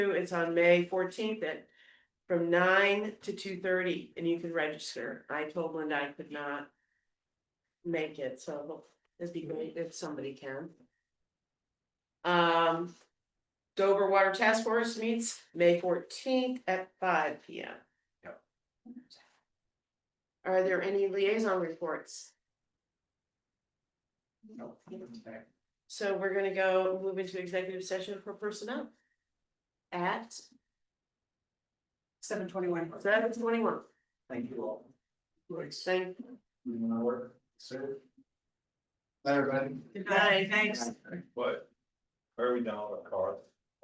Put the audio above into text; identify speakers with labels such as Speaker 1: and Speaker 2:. Speaker 1: It's on May fourteenth at from nine to two thirty and you can register. I told Linda I could not. Make it, so it'd be great if somebody can. Um. Dover Water Task Force meets May fourteenth at five P M.
Speaker 2: Yep.
Speaker 1: Are there any liaison reports?
Speaker 2: No.
Speaker 1: So we're gonna go move into executive session for personnel. At
Speaker 3: Seven twenty-one.
Speaker 1: seven twenty-one.
Speaker 2: Thank you all. Thanks.
Speaker 1: Thank
Speaker 2: Leaving my work, sir. Bye, everybody.
Speaker 1: Good night.
Speaker 3: Thanks.
Speaker 2: What? Where are we down with our car?